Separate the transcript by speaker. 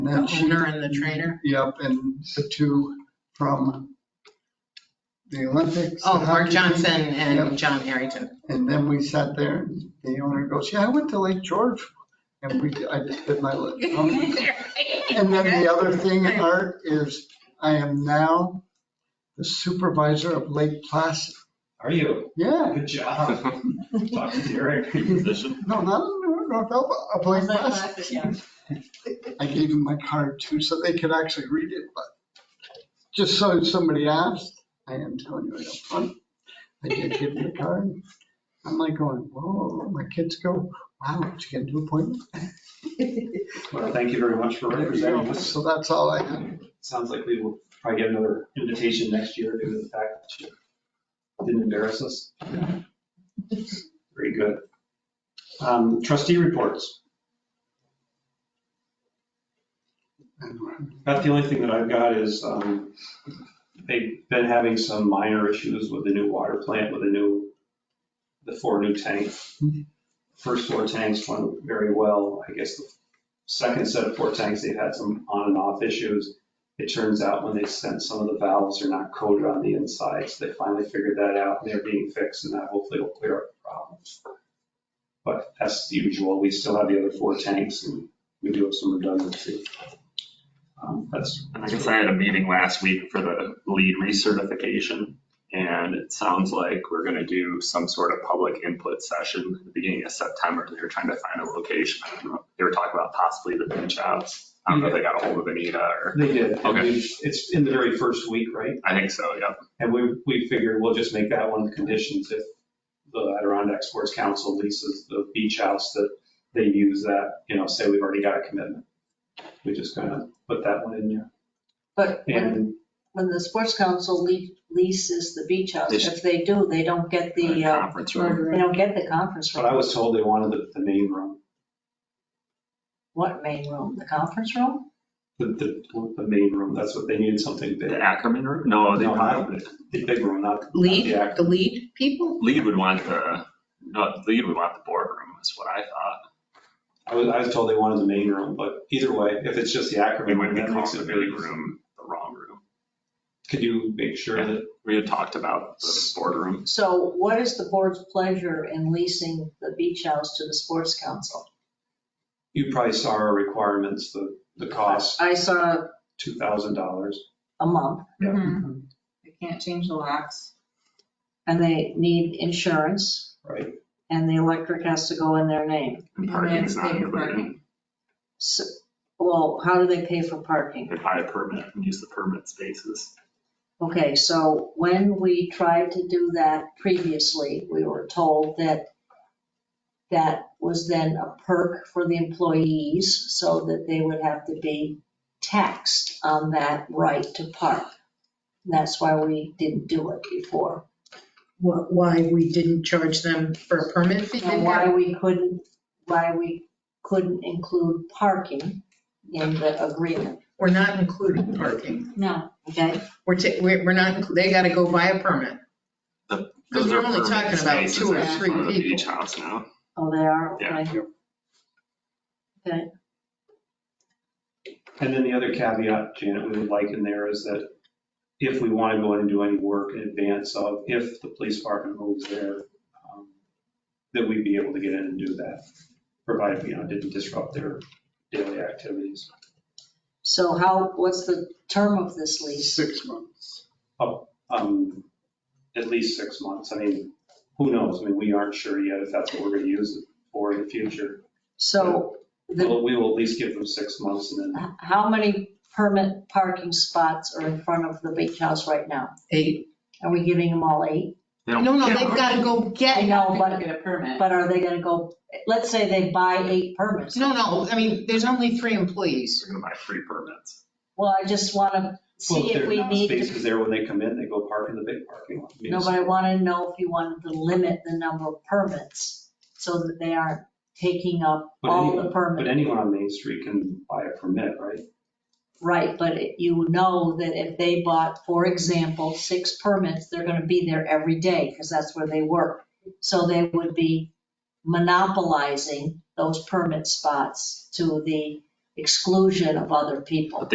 Speaker 1: The
Speaker 2: The owner
Speaker 1: she-
Speaker 2: and the trainer?
Speaker 1: Yep, and the two from the Olympics. the
Speaker 2: Oh, Mark
Speaker 1: hockey team.
Speaker 2: Johnson and
Speaker 1: Yep.
Speaker 2: John Harrington.
Speaker 1: And then we sat there and the owner goes, yeah, I went to Lake George. And we, I just bit my lip. Um,
Speaker 3: Mm-hmm.
Speaker 1: And then the other thing, Art, is I am now the supervisor of Lake Placid.
Speaker 4: Are you?
Speaker 1: Yeah,
Speaker 4: Good job. Talk to Derek.
Speaker 1: no, not in North Elba, of Lake Placid. I gave him my card too, so they could actually read it, but just so somebody asked, I am telling you right up front, I did give him the card. I'm like going, whoa, my kids go, wow, did you get a new appointment?
Speaker 4: Well, thank you very much for representing us.
Speaker 1: So that's all I had.
Speaker 4: Sounds like we will probably get another invitation next year due to the fact that you didn't embarrass us. Very good. Um, Trustee reports. About the only thing that I've got is um, they've been having some minor issues with the new water plant, with the new, the four new tanks. First four tanks went very well. I guess the second set of four tanks, they've had some on and off issues. It turns out when they sent some of the valves are not coated on the inside, so they finally figured that out and they're being fixed and that hopefully will clear up the problems. But as usual, we still have the other four tanks and we do have some redundancy. Um, That's,
Speaker 5: And I guess I had a meeting last week for the lead recertification, and it sounds like we're gonna do some sort of public input session at the beginning of September. They were trying to find a location. I don't know. They were talking about possibly the beach house. I don't know if they got a hold of Anita or,
Speaker 4: they did. and
Speaker 5: Okay.
Speaker 4: we- It's in the very first week, right?
Speaker 5: I think so, yeah.
Speaker 4: And we, we figured we'll just make that one of the conditions if the Adirondack Sports Council leases the beach house that they use that, you know, say we've already got a commitment. We just kind of put that one in there.
Speaker 6: But when,
Speaker 4: And
Speaker 6: when the sports council le- leases the beach house, if they do, they don't get the, uh,
Speaker 5: Conference room.
Speaker 6: they don't get the conference
Speaker 4: but I
Speaker 6: room.
Speaker 4: was told they wanted the, the main room,
Speaker 6: What main room? The conference room?
Speaker 4: the, the, the main room. That's what they needed, something big.
Speaker 5: The Ackerman room? No, they
Speaker 4: No, not-
Speaker 5: wanted,
Speaker 4: The big room, not. not the
Speaker 2: Lead,
Speaker 4: act-
Speaker 2: the lead people?
Speaker 5: lead would want the, no, lead would want the boardroom is what I thought.
Speaker 4: I was, I was told they wanted the main room, but either way, if it's just the
Speaker 5: We
Speaker 4: Ackerman
Speaker 5: wouldn't
Speaker 4: room,
Speaker 5: be
Speaker 4: that makes
Speaker 5: calling
Speaker 4: it
Speaker 5: the
Speaker 4: really
Speaker 5: big
Speaker 4: room.
Speaker 5: room the wrong room.
Speaker 4: Could you make sure that
Speaker 5: We had talked about the boardroom.
Speaker 6: So what is the board's pleasure in leasing the beach house to the sports council?
Speaker 4: you probably saw our requirements, the, the cost,
Speaker 6: I saw
Speaker 4: two thousand dollars.
Speaker 6: a month
Speaker 2: They can't change the locks.
Speaker 6: and they need insurance.
Speaker 4: Right.
Speaker 6: And the electric has to go in their name.
Speaker 5: And
Speaker 2: And they have
Speaker 5: parking's
Speaker 2: to
Speaker 5: not
Speaker 2: pay for
Speaker 5: included.
Speaker 2: parking.
Speaker 6: So, well, how do they pay for parking?
Speaker 5: They buy a permit and use the permit spaces.
Speaker 6: Okay, so when we tried to do that previously, we were told that that was then a perk for the employees so that they would have to be taxed on that right to park. That's why we didn't do it before.
Speaker 2: What, why we didn't charge them for a permit fee?
Speaker 6: And why we couldn't, why we couldn't include parking in the agreement.
Speaker 2: We're not including parking.
Speaker 6: No. Okay,
Speaker 2: We're, ta- we're we're not, inclu- they gotta go buy a permit. Because
Speaker 5: Those
Speaker 2: we're
Speaker 5: are
Speaker 2: only
Speaker 5: permit
Speaker 2: talking about
Speaker 5: spaces
Speaker 2: two or
Speaker 5: in
Speaker 2: three
Speaker 5: front of the
Speaker 2: people.
Speaker 5: Beach house now.
Speaker 6: oh, they are,
Speaker 5: Yeah.
Speaker 6: okay.
Speaker 4: And then the other caveat, Janet, we would like in there is that if we want to go in and do any work in advance of, if the police department moves there, um, that we'd be able to get in and do that, provided, you know, it didn't disrupt their daily activities.
Speaker 6: So how, what's the term of this lease?
Speaker 1: Six months.
Speaker 4: Um, At least six months. I mean, who knows? I mean, we aren't sure yet if that's what we're going to use it for in the future.
Speaker 6: So the,
Speaker 4: But we will at least give them six months and then,
Speaker 6: how many permit parking spots are in front of the beach house right now?
Speaker 2: Eight.
Speaker 6: Are we giving them all eight?
Speaker 5: They don't
Speaker 2: No, no,
Speaker 5: get
Speaker 2: they've
Speaker 5: one.
Speaker 2: gotta go
Speaker 6: I
Speaker 2: get,
Speaker 6: know,
Speaker 3: They
Speaker 6: but,
Speaker 3: Get a permit.
Speaker 6: but are they gonna go, let's say they buy eight permits.
Speaker 2: no, no, I mean, there's only three employees.
Speaker 5: They're gonna buy free permits.
Speaker 6: Well, I just wanna
Speaker 4: well,
Speaker 6: see
Speaker 4: if
Speaker 6: if
Speaker 4: there
Speaker 6: we
Speaker 4: are
Speaker 6: need to,
Speaker 4: spaces there when they come in, they go park in the big parking lot. I mean,
Speaker 6: no, but I wanna know if you wanted to limit the number of permits so that they aren't taking up
Speaker 4: But
Speaker 6: all
Speaker 4: anyway-
Speaker 6: the
Speaker 4: But
Speaker 6: permits.
Speaker 4: anyone on Main Street can buy a permit, right?
Speaker 6: Right, but it- you know that if they bought, for example, six permits, they're gonna be there every day because that's where they work. So they would be monopolizing those permit spots to the exclusion of other people.